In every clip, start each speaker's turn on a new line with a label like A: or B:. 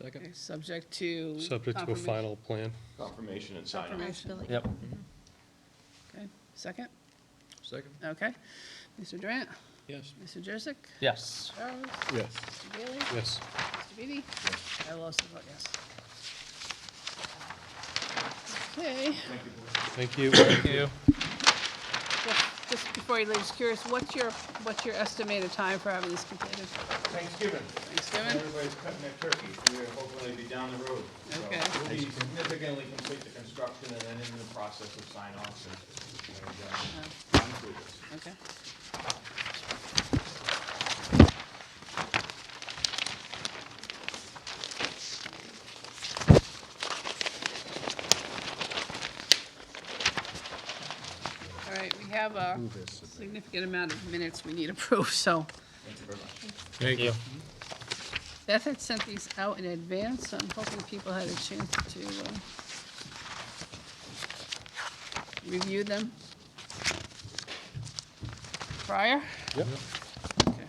A: Second.
B: Okay, Subject to.
C: subject to a
B: confirmation-
C: final plan.
D: Confirmation and sign off.
B: Confirmation.
E: Possibility.
A: Yep.
B: Okay, second,
A: Second.
B: okay. Mr. Durant,
C: Yes.
B: Mr. Jurassic,
A: Yes.
B: Charles,
C: Yes.
B: Mr. Bailey,
C: Yes.
B: Mr. Beatty. I will also vote yes. Okay,
C: Thank you.
A: Thank you.
B: just- just before he leaves, curious, what's your, what's your estimated time for having this completed?
D: Thanksgiving,
B: Thanksgiving?
D: everybody's cutting their turkey, we're hopefully be down the road. So
B: Okay.
D: We'll be significantly complete the construction and then in the process of sign offs and, and, uh, conclude this.
B: Okay. All right, we have a significant amount of minutes we need approved, so
D: Thank you very much.
C: Thank you.
B: Beth had sent these out in advance, so I'm hoping people had a chance to uh, review them prior.
C: Yep.
B: Okay.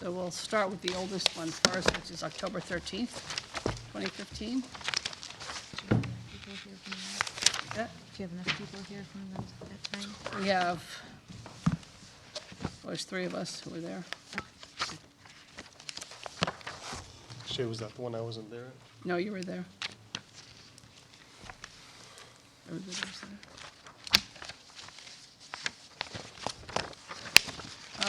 B: So we'll start with the oldest one first, which is October 13th, 2015.
E: Do you have enough
B: Yeah,
E: people here from that- do you have enough people here from those- that time?
B: We have, well, there's three of us who were there.
C: Shay, was that the one I wasn't there?
B: No, you were there. Everybody was there.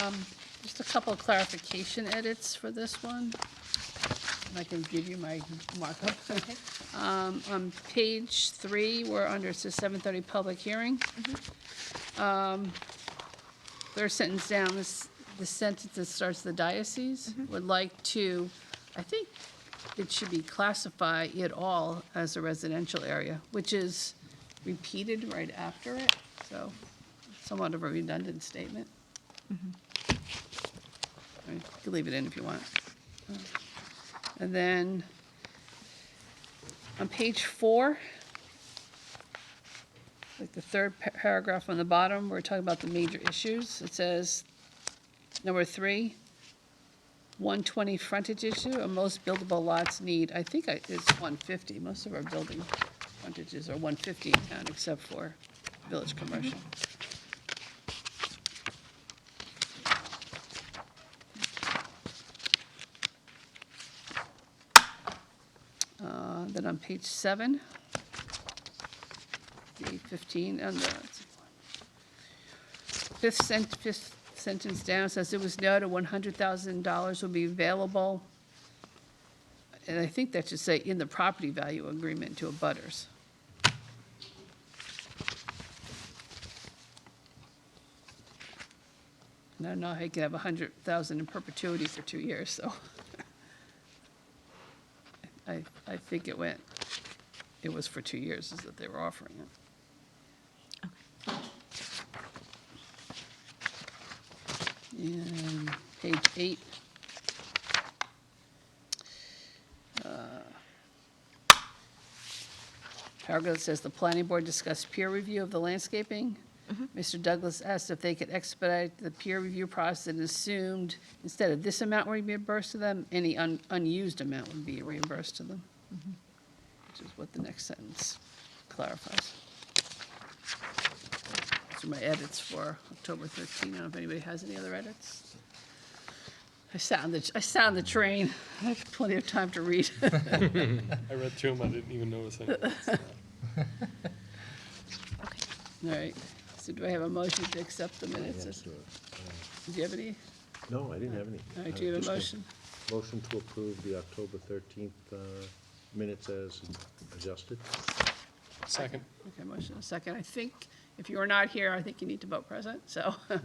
B: Um, Just a couple of clarification edits for this one. And I can give you my markup.
E: Okay.
B: Um, On page three, we're under, it says 7:30 public hearing. Um, Third sentence down, this, the sentence that starts the diocese would like to, I think it should be classify it all as a residential area, which is repeated right after it, so somewhat of a redundant statement. I mean, You can leave it in if you want. And then on page four, like the third pa- paragraph on the bottom, we're talking about the major issues. It says, number three, 120 frontage issue, and most buildable lots need, I think I- it's 150. Most of our building frontages are 150 in town, except for village commercial. Uh, Then on page seven, the 15, and the, Fifth sent, fifth sentence down says it was noted one hundred thousand dollars will be available. And I think that should say in the property value agreement to abutters. And I don't know how you can have a hundred thousand in perpetuity for two years, so. I, I think it went, it was for two years is that they were offering it. And page eight. Uh, Paragraph that says, "The planning board discussed peer review of the landscaping. Mr. Douglas asked if they could expedite the peer review process and assumed instead of this amount would be reimbursed to them, any un- unused amount would be reimbursed to them." Which is what the next sentence clarifies. Those are my edits for October 13. I don't know if anybody has any other edits. I sound the, I sound the train. I have plenty of time to read.
C: I read through them, I didn't even notice anything.
E: Okay.
B: All right, so do I have a motion to accept the minutes? Do you have any?
F: No, I didn't have any.
B: All right, do you have a
F: Uh,
B: motion?
F: Motion to approve the October 13th uh, minutes as adjusted.
C: Second.
B: Okay, motion and a second. I think if you are not here, I think you need to vote present, so uh,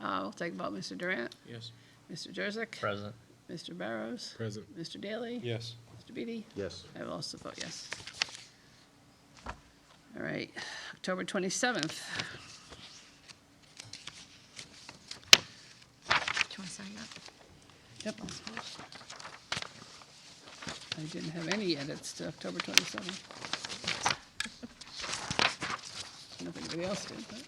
B: I'll take a vote. Mr. Durant,
C: Yes.
B: Mr. Jurassic,
A: Present.
B: Mr. Barrows,
C: Present.
B: Mr. Daly.
C: Yes.
B: Mr. Beatty.
F: Yes.
B: I will also vote yes. All right, October 27th.
E: Do you want to sign up?
B: Yep. I didn't have any edits to October 27th. I don't know if anybody else did, but.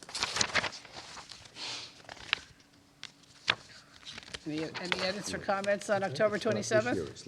B: Any, any edits or comments on October
F: It's not this
B: 27th?
F: year, it's